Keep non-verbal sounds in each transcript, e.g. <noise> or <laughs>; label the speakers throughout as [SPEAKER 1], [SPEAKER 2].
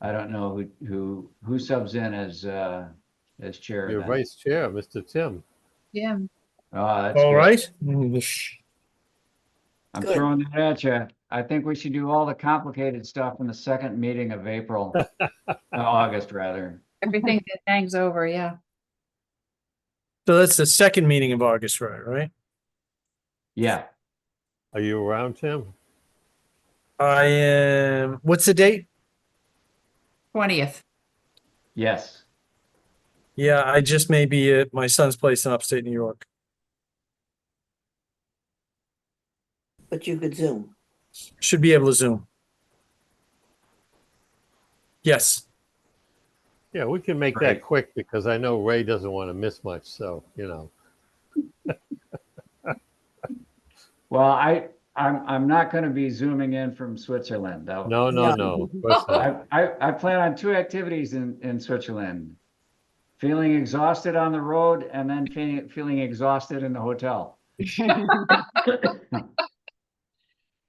[SPEAKER 1] I don't know who, who, who subs in as, uh, as chair.
[SPEAKER 2] Your
[SPEAKER 1] then.
[SPEAKER 2] vice chair, Mr. Tim.
[SPEAKER 3] Yeah,
[SPEAKER 1] Oh, that's
[SPEAKER 4] All
[SPEAKER 1] good. Mm-hmm.
[SPEAKER 4] right. Mm,
[SPEAKER 1] I'm
[SPEAKER 5] Good.
[SPEAKER 1] throwing that at you. I think we should do all the complicated stuff in the second meeting of
[SPEAKER 4] <laughs>
[SPEAKER 1] April, Uh, August rather.
[SPEAKER 3] <laughs> everything that hangs over, yeah.
[SPEAKER 4] So that's the second meeting of August, right? Right?
[SPEAKER 1] Yeah,
[SPEAKER 2] Are you around, Tim?
[SPEAKER 4] I am, what's the date?
[SPEAKER 3] Twentieth.
[SPEAKER 1] yes.
[SPEAKER 4] Yeah, I just may be at my son's place in upstate New York.
[SPEAKER 5] but you could Zoom.
[SPEAKER 4] Should be able to Zoom. Yes.
[SPEAKER 2] Yeah, we can make that
[SPEAKER 1] Right.
[SPEAKER 2] quick because I know Ray doesn't want to miss much, so, you know.
[SPEAKER 1] Well, I, I'm, I'm not going to be zooming in from Switzerland though.
[SPEAKER 2] No, no,
[SPEAKER 5] Yeah.
[SPEAKER 2] no. <laughs> of course not.
[SPEAKER 1] I, I, I plan on two activities in, in Switzerland. Feeling exhausted on the road and then feeling, feeling exhausted in the hotel.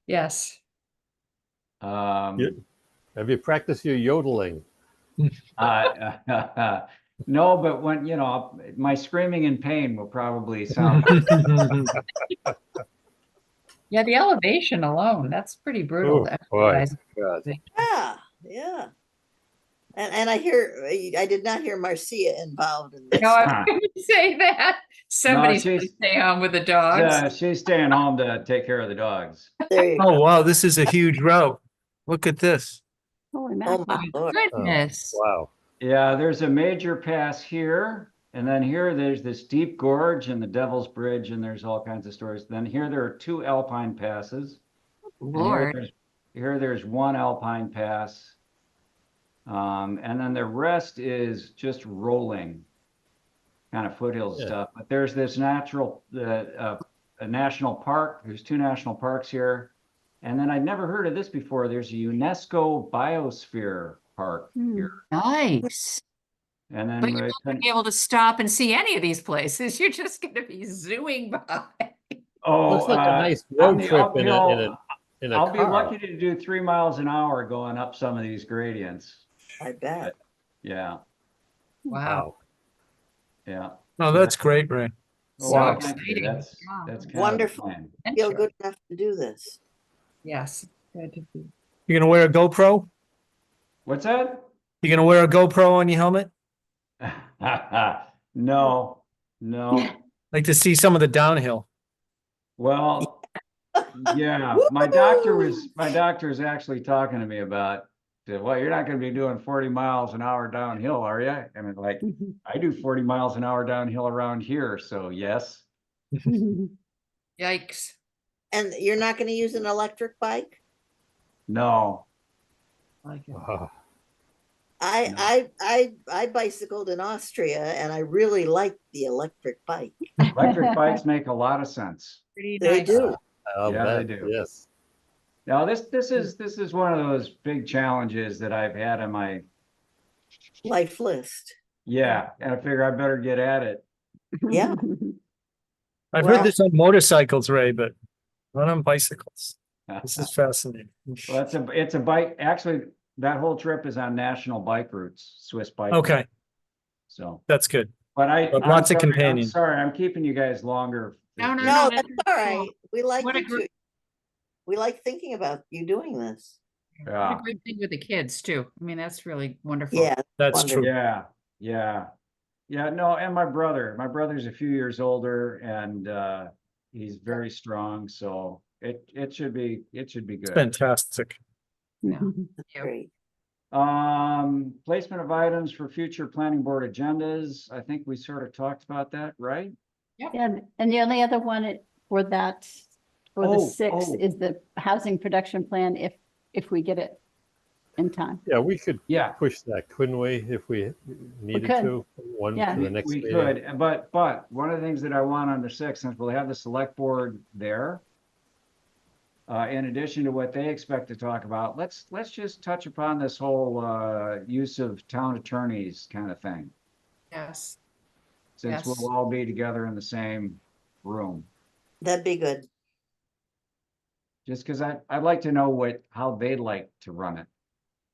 [SPEAKER 3] Yes.
[SPEAKER 1] Um,
[SPEAKER 2] Yeah. Have you practiced your yodeling?
[SPEAKER 1] uh, <laughs> no, but when, you know, my screaming in pain will probably sound,
[SPEAKER 3] Yeah, the elevation alone, that's pretty brutal.
[SPEAKER 2] Oh,
[SPEAKER 3] to
[SPEAKER 2] boy.
[SPEAKER 3] <laughs> exercise.
[SPEAKER 2] God.
[SPEAKER 5] Yeah, yeah. And, and I hear, I did not hear Marcia involved in this.
[SPEAKER 3] No, I wouldn't say that. Somebody's gonna
[SPEAKER 1] she's-
[SPEAKER 3] stay on with the dogs.
[SPEAKER 1] Yeah, she's staying home to take care of the dogs.
[SPEAKER 5] There you
[SPEAKER 4] <laughs> Oh,
[SPEAKER 5] go.
[SPEAKER 4] wow, this is a huge route. Look at this.
[SPEAKER 6] Holy
[SPEAKER 5] Oh,
[SPEAKER 6] mackerel.
[SPEAKER 5] my lord.
[SPEAKER 3] Goodness.
[SPEAKER 1] Oh,
[SPEAKER 2] Wow.
[SPEAKER 1] Yeah, there's a major pass here. And then here, there's this deep gorge and the Devil's Bridge, and there's all kinds of stories. Then here, there are two alpine passes. And here
[SPEAKER 3] Lord,
[SPEAKER 1] there's- Here, there's one alpine pass. Um, and then the rest is just rolling, kind of foothill
[SPEAKER 2] Yeah.
[SPEAKER 1] stuff. But there's this natural, uh, uh, a national park. There's two national parks here. And then I'd never heard of this before. There's a UNESCO biosphere park
[SPEAKER 6] Hmm.
[SPEAKER 1] here.
[SPEAKER 3] nice.
[SPEAKER 1] And then
[SPEAKER 3] But you're
[SPEAKER 1] I
[SPEAKER 3] Be
[SPEAKER 1] couldn't-
[SPEAKER 3] able to stop and see any of these places. <laughs> You're just gonna be zooing by.
[SPEAKER 1] oh,
[SPEAKER 2] Looks like
[SPEAKER 1] uh,
[SPEAKER 2] a nice road
[SPEAKER 1] the
[SPEAKER 2] trip in a, in a,
[SPEAKER 1] uphill-
[SPEAKER 2] in a
[SPEAKER 1] I'll be
[SPEAKER 2] car.
[SPEAKER 1] lucky to do three miles an hour going up some of these gradients.
[SPEAKER 5] I bet.
[SPEAKER 1] Yeah,
[SPEAKER 3] Wow.
[SPEAKER 1] yeah.
[SPEAKER 4] Oh, that's great, Ray.
[SPEAKER 1] Well,
[SPEAKER 3] So
[SPEAKER 1] wow, thank you.
[SPEAKER 3] exciting.
[SPEAKER 1] That's,
[SPEAKER 3] Wow.
[SPEAKER 1] that's kind
[SPEAKER 5] Wonderful.
[SPEAKER 1] Of the plan.
[SPEAKER 5] Feel
[SPEAKER 3] Adventure.
[SPEAKER 5] good enough to do this.
[SPEAKER 3] Yes. Good to be-
[SPEAKER 4] You're gonna wear a GoPro?
[SPEAKER 1] What's that? <laughs>
[SPEAKER 4] You're gonna wear a GoPro on your helmet?
[SPEAKER 1] no, no.
[SPEAKER 4] Like to see some of the downhill.
[SPEAKER 1] Well, yeah, my doctor was, my doctor is actually talking to me about, said, well, you're not going to be doing 40 miles an hour downhill, are you? And I'm like, I do 40 miles an hour downhill around here. So, yes.
[SPEAKER 5] <laughs>
[SPEAKER 3] Yikes.
[SPEAKER 5] And you're not going to use an electric bike?
[SPEAKER 1] No.
[SPEAKER 3] Like it.
[SPEAKER 2] Wow. <laughs>
[SPEAKER 5] I,
[SPEAKER 1] No.
[SPEAKER 5] I, I, I bicycled in Austria and I really liked the electric bike.
[SPEAKER 1] Electric bikes make a lot of sense.
[SPEAKER 3] Pretty
[SPEAKER 5] They
[SPEAKER 3] nice.
[SPEAKER 5] do.
[SPEAKER 2] I'll
[SPEAKER 1] Yeah, they
[SPEAKER 2] bet,
[SPEAKER 1] do.
[SPEAKER 2] Yes.
[SPEAKER 1] Now, this, this is, this is one of those big challenges that I've had on my
[SPEAKER 5] Life list.
[SPEAKER 1] Yeah, and I figure I better get at it.
[SPEAKER 3] <laughs>
[SPEAKER 5] Yeah.
[SPEAKER 4] I've
[SPEAKER 5] Wow.
[SPEAKER 4] heard this on motorcycles, Ray, but not on bicycles. This is fascinating.
[SPEAKER 1] Well, it's a, it's a bike, actually, that whole trip is on national bike routes, Swiss bike. routes,
[SPEAKER 4] Okay,
[SPEAKER 1] So,
[SPEAKER 4] that's good.
[SPEAKER 1] but I.
[SPEAKER 4] But
[SPEAKER 1] I'm
[SPEAKER 4] lots of
[SPEAKER 1] sorry, I'm
[SPEAKER 4] companion.
[SPEAKER 1] Sorry, I'm keeping you guys longer.
[SPEAKER 3] No, no,
[SPEAKER 5] No,
[SPEAKER 3] no.
[SPEAKER 5] that's
[SPEAKER 3] that's
[SPEAKER 5] all
[SPEAKER 3] cool.
[SPEAKER 5] right. We like,
[SPEAKER 3] What a
[SPEAKER 5] you
[SPEAKER 3] gr-
[SPEAKER 5] two- we like thinking about you doing this.
[SPEAKER 3] What
[SPEAKER 1] Yeah,
[SPEAKER 3] a great thing with the kids too. I mean, that's really wonderful.
[SPEAKER 5] Yeah,
[SPEAKER 4] That's
[SPEAKER 5] Wonderful.
[SPEAKER 4] true.
[SPEAKER 1] yeah, yeah. Yeah, no, and my brother, my brother's a few years older and, uh, he's very strong, so it, it should be, it should be good.
[SPEAKER 4] Fantastic.
[SPEAKER 3] Yeah.
[SPEAKER 5] great.
[SPEAKER 1] Um, placement of items for future planning board agendas. I think we sort of talked about that, right?
[SPEAKER 6] <laughs> And, and the only other one it- for that, for the
[SPEAKER 1] Oh,
[SPEAKER 6] six
[SPEAKER 1] oh.
[SPEAKER 6] is the housing production plan if, if we get it in time.
[SPEAKER 2] Yeah, we could
[SPEAKER 1] Yeah,
[SPEAKER 2] push that, couldn't we, if we needed
[SPEAKER 6] could.
[SPEAKER 2] to? One
[SPEAKER 6] Yeah.
[SPEAKER 2] for the next
[SPEAKER 1] We
[SPEAKER 2] meeting.
[SPEAKER 1] could, but, but one of the things that I want on the sixth, since we'll have the select board there. Uh, in addition to what they expect to talk about, let's, let's just touch upon this whole, uh, use of town attorneys kind of thing.
[SPEAKER 3] Yes.
[SPEAKER 1] Since
[SPEAKER 3] Yes.
[SPEAKER 1] we'll all be together in the same room,
[SPEAKER 5] That'd be good.
[SPEAKER 1] just because I, I'd like to know what, how they'd like to run it.